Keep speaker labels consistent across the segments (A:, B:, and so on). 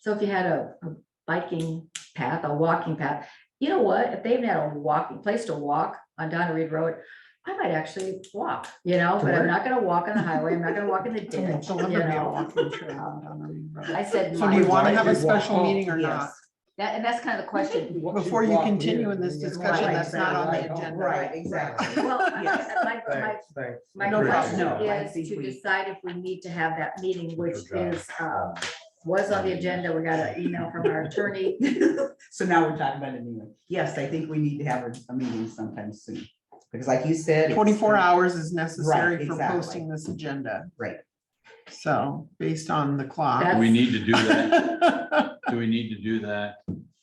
A: So if you had a a biking path, a walking path, you know what, if they even had a walking place to walk on Donna Reed Road, I might actually walk, you know,
B: To
A: but I'm
B: work.
A: not gonna walk on the highway, I'm not gonna walk in the ditch,
C: It's a
A: you
C: Liberty
A: know.
C: walking trail on the main road.
A: I said.
C: So do you
A: might.
C: want
B: Why
C: to have a
B: did walk-
C: special meeting or not?
A: Yes. That, and that's kind of the question.
C: Before you continue in this discussion,
A: Right,
C: that's not on the agenda.
D: Right, exactly.
A: Well, I guess my, my
B: Thanks, thanks.
A: My
C: No,
A: question
C: no,
D: I
A: is
D: think
A: to
D: we-
A: decide if we need to have that meeting, which
B: Okay.
A: is, uh, was on the agenda. We got an email from our attorney.
D: So now we're talking about it anyway. Yes, I think we need to have a, a meeting sometime soon, because like you said. it's- uh,
C: Twenty-four hours is necessary for
D: exactly.
C: posting this agenda.
D: Right.
C: So based on the clock.
E: Do we need to do that?
C: Yeah,
E: Do we need to do that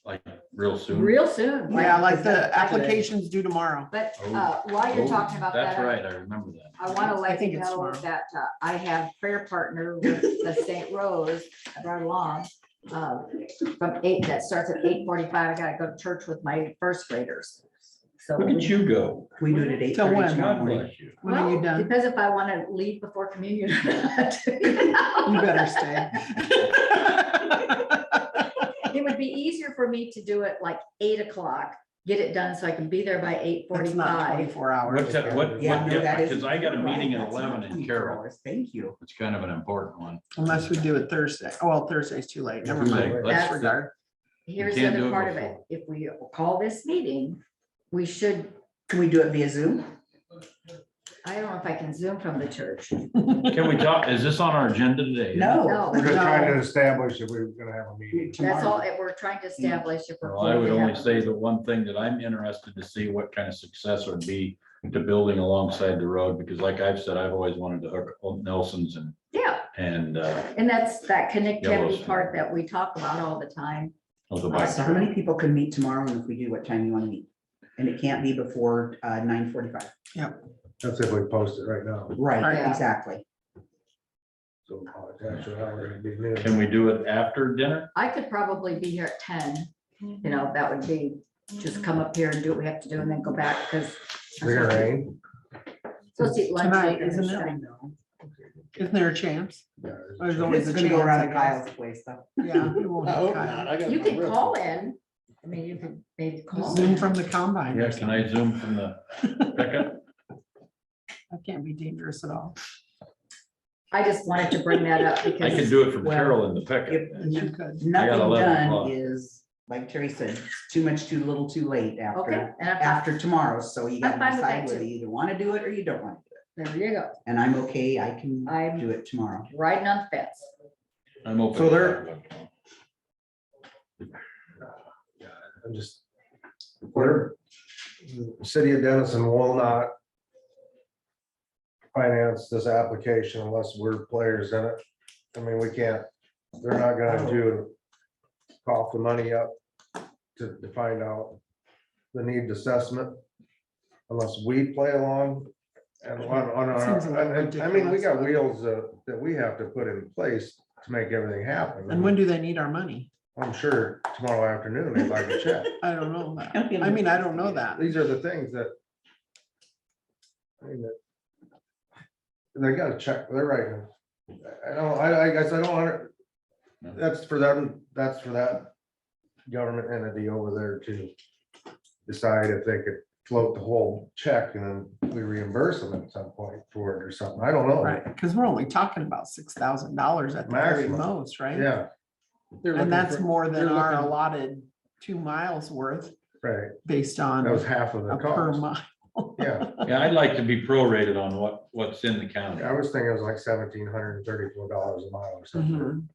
E: like real soon?
A: Real soon.
C: like the applications due tomorrow.
A: But, uh, while you're
E: Oh,
A: talking about that.
E: That's right, I remember that.
A: I want to
C: I
A: let
C: think
A: you
C: it's
A: know
C: tomorrow.
A: that uh, I have prayer partner with the St. Rose, I brought along. uh, From eight, that starts at eight forty-five. I gotta go to church with my first graders. So.
E: Look at you go.
D: We do it at eight
C: Till when?
D: thirty tomorrow
E: God
D: morning.
E: bless you.
C: When are you
A: Well,
C: done?
A: Depends if I want to leave before communion. or not.
C: You better stay.
A: It would be easier for me to do it like eight o'clock, get it done so I can be there by eight
C: It's not
A: forty-five.
C: twenty-four hours.
E: What's that, what, what,
D: Yeah, no, that is-
E: because I got a
D: right,
E: meeting at
D: that's not
E: eleven in
D: 24
E: Carroll.
D: hours. Thank you.
E: It's kind of an important one.
C: Unless we do it Thursday. Oh, well, Thursday's too late. Never
E: Too
C: mind.
E: late.
A: That's-
C: Disregard.
A: Here's the
E: can't do
A: other
E: it
A: part of it.
E: before.
A: If we call this meeting, we should,
D: Can we do it via Zoom?
A: I don't know if I can zoom from the church.
E: Can we talk, is this on our agenda today?
D: No.
A: No,
B: We're just trying to
A: no.
B: establish if we were gonna have a meeting.
A: That's all
D: Tomorrow.
A: that we're trying to establish. if we're
E: Well, I would
A: going to
E: only
A: have-
E: say the one thing that I'm interested to see what kind of success would be to building alongside the road, because like I've said, I've always wanted to hook up Nelson's and,
A: Yeah,
E: and, uh,
A: and that's that
E: Yellowstone.
A: connectivity part that we talk about all the time.
E: of the
D: Uh,
E: bike.
D: So how many people can meet tomorrow and if we do, what time you want to meet? And it can't be before uh nine forty-five.
B: That's if we post it right now.
D: Right,
C: Oh,
A: Yeah.
D: exactly.
B: So uh, that's how we're gonna be living.
E: Can we do it after dinner?
A: I could probably be here at ten, you know, that would be, just come up here and do what we have to do and then go back, because.
B: We're gonna rain.
A: Supposed to eat lunch.
C: Tonight,
A: later and
C: isn't it?
A: stuff.
C: Isn't there a chance?
B: Yeah,
C: There's always
D: It's
C: a
D: gonna go
C: chance, I
D: around
C: guess.
D: Kyle's place though.
C: Yeah. we won't have time.
A: You can call in, I mean, you can maybe call.
C: Zoom
A: in.
C: from the combine.
E: Yeah, can I zoom from the pickup?
C: That can't be dangerous at all.
A: I just wanted to bring that up
E: I can
A: because,
E: do it from
D: Well,
E: Carroll in the
D: If
E: pickup.
C: You could.
D: nothing
E: 11
D: done
E: o'clock.
D: is, like Terry said, it's too much, too little, too late
A: okay,
D: after,
A: and I'm,
D: after tomorrow. So you
A: I'm fine
D: gotta
A: with that
D: decide whether
A: too.
D: you either want to do it or you don't want to do it.
A: there you go,
D: And I'm okay, I can
A: I'm-
D: do it tomorrow.
A: riding on the fence.
E: I'm open.
B: So
E: to
B: there-
E: that.
B: I'm just. Where, the city of Denison will not. Finance this application unless we're players in it. I mean, we can't, they're not gonna do. Cough the money up to, to find out the need assessment. Unless we play along and on, on
C: Seems a little
B: our, and- and- I mean, we got
C: ridiculous.
B: wheels uh, that we have to put in place to make everything happen.
C: And when do they need our money?
B: I'm sure tomorrow afternoon, they'd like to check.
C: I don't know. that.
D: Don't be
C: I mean, I don't know that.
B: These are the things that. I mean, that- They gotta check, they're right. I don't, I, I guess I don't want to. That's for them, that's for that government entity over there to decide if they could float the whole check and then we reimburse them at some point for it or something. I don't know.
C: Right, because we're only talking about six thousand dollars at the very
B: Maximum.
C: most, right?
B: Yeah,
C: And that's more than
F: they're
C: our
F: looking-
C: allotted two miles worth
B: right.
C: based
B: That was
C: on
B: half of the
C: a per
B: cost.
C: mile.
B: Yeah,
E: Yeah, I'd like to be prorated on what, what's in the county.
B: I was thinking it was like seventeen hundred and thirty-four dollars a mile or something.
C: Mhm.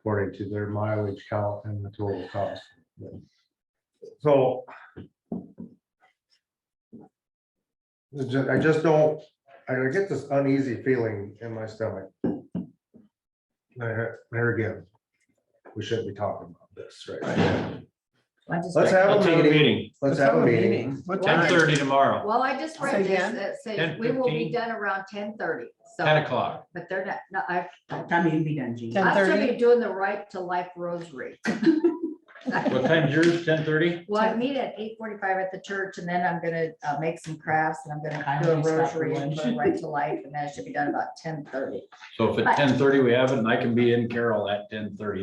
B: according to their mileage count and the total cost. So. I ju- I just don't, I get this uneasy feeling in my stomach. There there again, we shouldn't be talking about this, right? now.
A: I just-
B: Let's have
E: Let's
B: a meeting. Let's have a meeting.
C: What
E: Ten
C: time?
E: thirty tomorrow,
A: Well, I just read
C: Say
A: this,
C: again?
A: that says we will be done around ten thirty,
E: ten
A: so,
E: o'clock.
A: but they're not, no, I,
D: What Time you can be done, Jean.
C: Ten-
A: I'm still
C: 10:30?
A: be doing the right to life rosary.
E: What time's yours? Ten thirty?
A: Well, I meet at eight forty-five at the church and then I'm gonna uh, make some crafts and I'm gonna
D: I
A: do a
D: always stop for
A: rosary and
D: lunch.
A: put right to life and that should be done about ten thirty.
E: So if at ten thirty we have it, and I can be in Carroll at ten thirty,